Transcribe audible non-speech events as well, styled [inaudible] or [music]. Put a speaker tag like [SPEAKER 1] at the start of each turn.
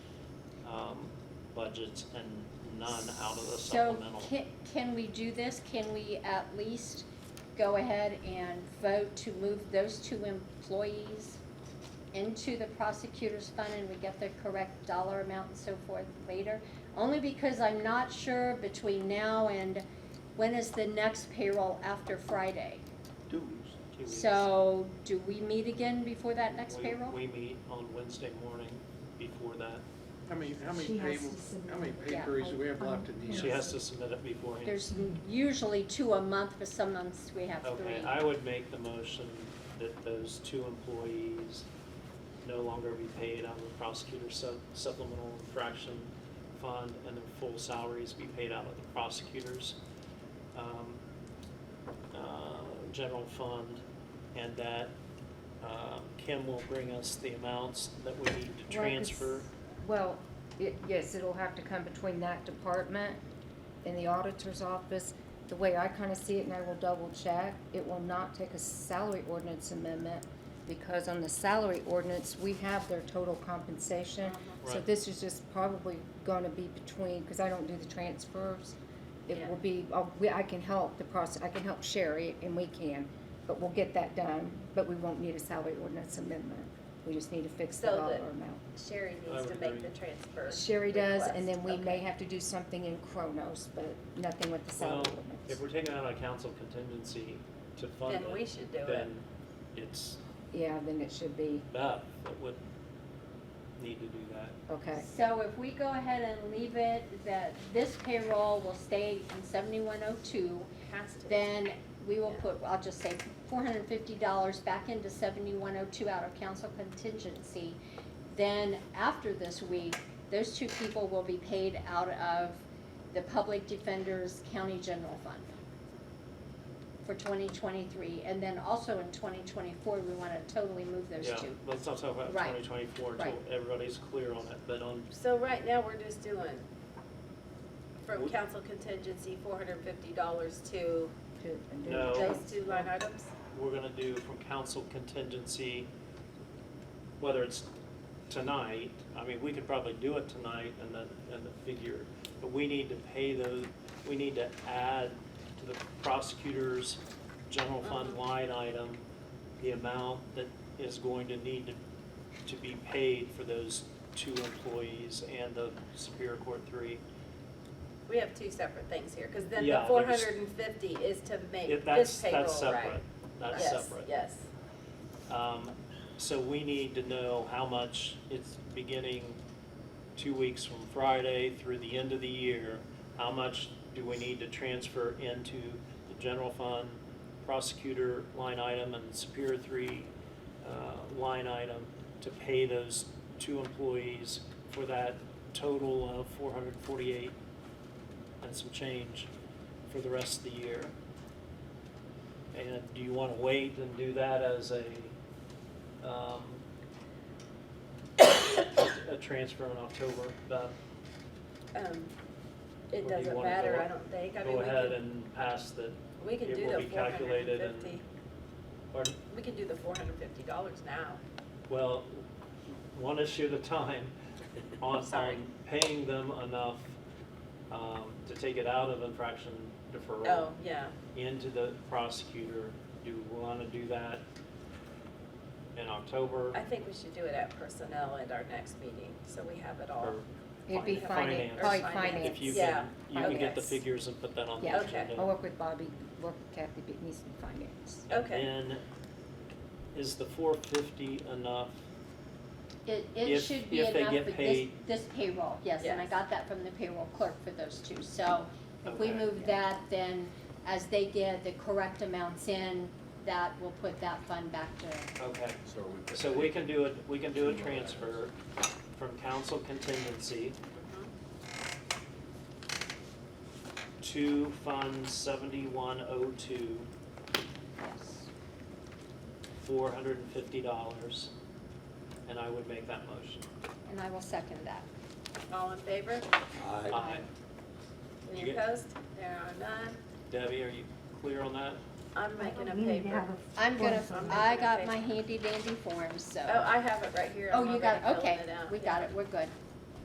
[SPEAKER 1] um, budgets and none out of the
[SPEAKER 2] So
[SPEAKER 1] supplemental.
[SPEAKER 2] can, can we do this? Can we at least go ahead and vote to move those two employees into the prosecutor's fund and we get the correct dollar amount and so forth later? Only because I'm not sure between now and when is the next payroll after Friday?
[SPEAKER 3] Two weeks.
[SPEAKER 1] Two weeks.
[SPEAKER 2] So do we meet again before that next
[SPEAKER 1] We-
[SPEAKER 2] payroll?
[SPEAKER 1] We meet on Wednesday morning before that.
[SPEAKER 3] How many, how many
[SPEAKER 4] She has
[SPEAKER 3] payable,
[SPEAKER 4] to submit
[SPEAKER 3] how many
[SPEAKER 4] it.
[SPEAKER 3] pay
[SPEAKER 2] Yeah,
[SPEAKER 3] periods do we have
[SPEAKER 4] I-
[SPEAKER 3] left in the year?
[SPEAKER 1] She has to submit it beforehand.
[SPEAKER 2] There's usually two a month, but some months we have three.
[SPEAKER 1] Okay, I would make the motion that those two employees no longer be paid out of the prosecutor's sup- supplemental infraction fund and their full salaries be paid out of the prosecutor's um, uh, general fund. And that um, Kim will bring us the amounts that we need to
[SPEAKER 4] Well, it's-
[SPEAKER 1] transfer.
[SPEAKER 4] Well, it, yes, it'll have to come between that department and the auditor's office. The way I kinda see it, and I will double check, it will not take a salary ordinance amendment, because on the salary ordinance, we have their total compensation. So
[SPEAKER 1] Right.
[SPEAKER 4] this is just probably gonna be between, cause I don't do the transfers. It
[SPEAKER 2] Yeah.
[SPEAKER 4] will be, I'll- we, I can help the process, I can help Sherry, and we can, but we'll get that done, but we won't need a salary ordinance amendment. We just need to fix the
[SPEAKER 5] So
[SPEAKER 4] dollar
[SPEAKER 5] the-
[SPEAKER 4] amount.
[SPEAKER 5] Sherry
[SPEAKER 1] I
[SPEAKER 5] needs to
[SPEAKER 1] would
[SPEAKER 5] make
[SPEAKER 1] agree.
[SPEAKER 5] the transfer.
[SPEAKER 4] Sherry does, and then
[SPEAKER 5] request.
[SPEAKER 4] we may
[SPEAKER 5] Okay.
[SPEAKER 4] have to do something in Kronos, but nothing with the
[SPEAKER 1] Well,
[SPEAKER 4] salary
[SPEAKER 1] if
[SPEAKER 4] ordinance.
[SPEAKER 1] we're taking out a council contingency to fund
[SPEAKER 5] Then we
[SPEAKER 1] it,
[SPEAKER 5] should do it.
[SPEAKER 1] then it's
[SPEAKER 4] Yeah, then it should be,
[SPEAKER 1] Beth that would need to do that.
[SPEAKER 4] okay,
[SPEAKER 2] So if we go ahead and leave it that this payroll will stay in seventy-one oh two,
[SPEAKER 5] Has to.
[SPEAKER 2] then we will
[SPEAKER 5] Yeah.
[SPEAKER 2] put, I'll just say, four hundred and fifty dollars back into seventy-one oh two out of council contingency. Then after this week, those two people will be paid out of the public defender's county general fund for twenty twenty-three, and then also in twenty twenty-four, we wanna totally move those
[SPEAKER 1] Yeah,
[SPEAKER 2] two.
[SPEAKER 1] let's not talk about
[SPEAKER 2] Right.
[SPEAKER 1] twenty twenty-four until
[SPEAKER 2] Right.
[SPEAKER 1] everybody's clear on it, but on,
[SPEAKER 5] So right now, we're just doing from
[SPEAKER 1] We-
[SPEAKER 5] council contingency, four hundred and fifty dollars to
[SPEAKER 4] good. and do it.
[SPEAKER 1] No.
[SPEAKER 5] those two line items?
[SPEAKER 1] we're gonna do from council contingency, whether it's tonight, I mean, we could probably do it tonight and then, and the figure, but we need to pay those, we need to add to the prosecutor's general fund
[SPEAKER 5] Uh-huh.
[SPEAKER 1] line item, the amount that is going to need to, to be paid for those two employees and the Superior Court three.
[SPEAKER 5] We have two separate things here, because then the
[SPEAKER 1] Yeah,
[SPEAKER 5] four
[SPEAKER 1] there's-
[SPEAKER 5] hundred and fifty is to
[SPEAKER 1] Yeah,
[SPEAKER 5] make
[SPEAKER 1] that's,
[SPEAKER 5] this payroll, right?
[SPEAKER 1] that's separate, that's
[SPEAKER 5] Yes,
[SPEAKER 1] separate.
[SPEAKER 5] Yes,
[SPEAKER 1] Um, so we need to know how much it's beginning two weeks from Friday through the end of the year. How much do we need to transfer into the general fund, prosecutor line item and Superior three, uh, line item to pay those two employees for that total of four hundred forty-eight and some change for the rest of the year. And do you want to wait and do that as a, um, a transfer in October? But Or
[SPEAKER 5] um,
[SPEAKER 1] do
[SPEAKER 5] it
[SPEAKER 1] you
[SPEAKER 5] doesn't
[SPEAKER 1] wanna
[SPEAKER 5] matter,
[SPEAKER 1] go-
[SPEAKER 5] I don't think, I mean,
[SPEAKER 1] go
[SPEAKER 5] we
[SPEAKER 1] ahead
[SPEAKER 5] can,
[SPEAKER 1] and pass the,
[SPEAKER 5] we can
[SPEAKER 1] it
[SPEAKER 5] do
[SPEAKER 1] will
[SPEAKER 5] the
[SPEAKER 1] be
[SPEAKER 5] four hundred
[SPEAKER 1] calculated
[SPEAKER 5] and
[SPEAKER 1] and-
[SPEAKER 5] fifty,
[SPEAKER 1] or,
[SPEAKER 5] we can do the four hundred and fifty dollars now.
[SPEAKER 1] well, one issue at a
[SPEAKER 5] [laughs]
[SPEAKER 1] time on,
[SPEAKER 5] Sorry.
[SPEAKER 1] on paying them enough, um, to take it out of infraction deferral.
[SPEAKER 5] Oh, yeah,
[SPEAKER 1] into the prosecutor. Do you want to do that in October?
[SPEAKER 5] I think we should do it at personnel at our next meeting, so we have it all.
[SPEAKER 1] or
[SPEAKER 4] It'd be
[SPEAKER 1] fin-
[SPEAKER 4] finance,
[SPEAKER 1] finance?
[SPEAKER 4] probably
[SPEAKER 5] Or finance.
[SPEAKER 4] finance.
[SPEAKER 1] If you
[SPEAKER 5] Yeah,
[SPEAKER 1] can, you can get the
[SPEAKER 5] finance.
[SPEAKER 1] figures and put that on the
[SPEAKER 4] Yeah.
[SPEAKER 5] Okay.
[SPEAKER 1] agenda.
[SPEAKER 4] I'll work with Bobby, work with Kathy, but it needs to be finance.
[SPEAKER 5] Okay.
[SPEAKER 1] And is the four fifty enough?
[SPEAKER 2] It, it
[SPEAKER 1] If-
[SPEAKER 2] should be
[SPEAKER 1] if they
[SPEAKER 2] enough
[SPEAKER 1] get
[SPEAKER 2] for this,
[SPEAKER 1] paid-
[SPEAKER 2] this payroll, yes, and I
[SPEAKER 5] Yes.
[SPEAKER 2] got that from the payroll clerk for those two, so if we
[SPEAKER 1] Okay.
[SPEAKER 2] move that, then as they get the correct amounts in, that will put that fund back to,
[SPEAKER 1] Okay,
[SPEAKER 6] So we.
[SPEAKER 1] so we can do it, we can do a transfer from council contingency
[SPEAKER 5] Mhm.
[SPEAKER 1] to fund seventy-one oh two,
[SPEAKER 2] yes.
[SPEAKER 1] four hundred and fifty dollars. And I would make that motion.
[SPEAKER 2] And I will second that.
[SPEAKER 5] All in favor?
[SPEAKER 6] Aye.
[SPEAKER 1] Aye. You
[SPEAKER 5] Any
[SPEAKER 1] get-
[SPEAKER 5] opposed? There are none.
[SPEAKER 1] Debbie, are you clear on that?
[SPEAKER 5] I'm making a
[SPEAKER 4] We Oh, need to
[SPEAKER 5] paper.
[SPEAKER 4] have a
[SPEAKER 2] I'm gonna,
[SPEAKER 5] Awesome.
[SPEAKER 2] I got my handy dandy form, so.
[SPEAKER 5] Oh, I have it right here.
[SPEAKER 2] Oh,
[SPEAKER 5] I'm
[SPEAKER 2] you got,
[SPEAKER 5] already filling
[SPEAKER 2] okay,
[SPEAKER 5] it out.
[SPEAKER 2] we got it, we're good.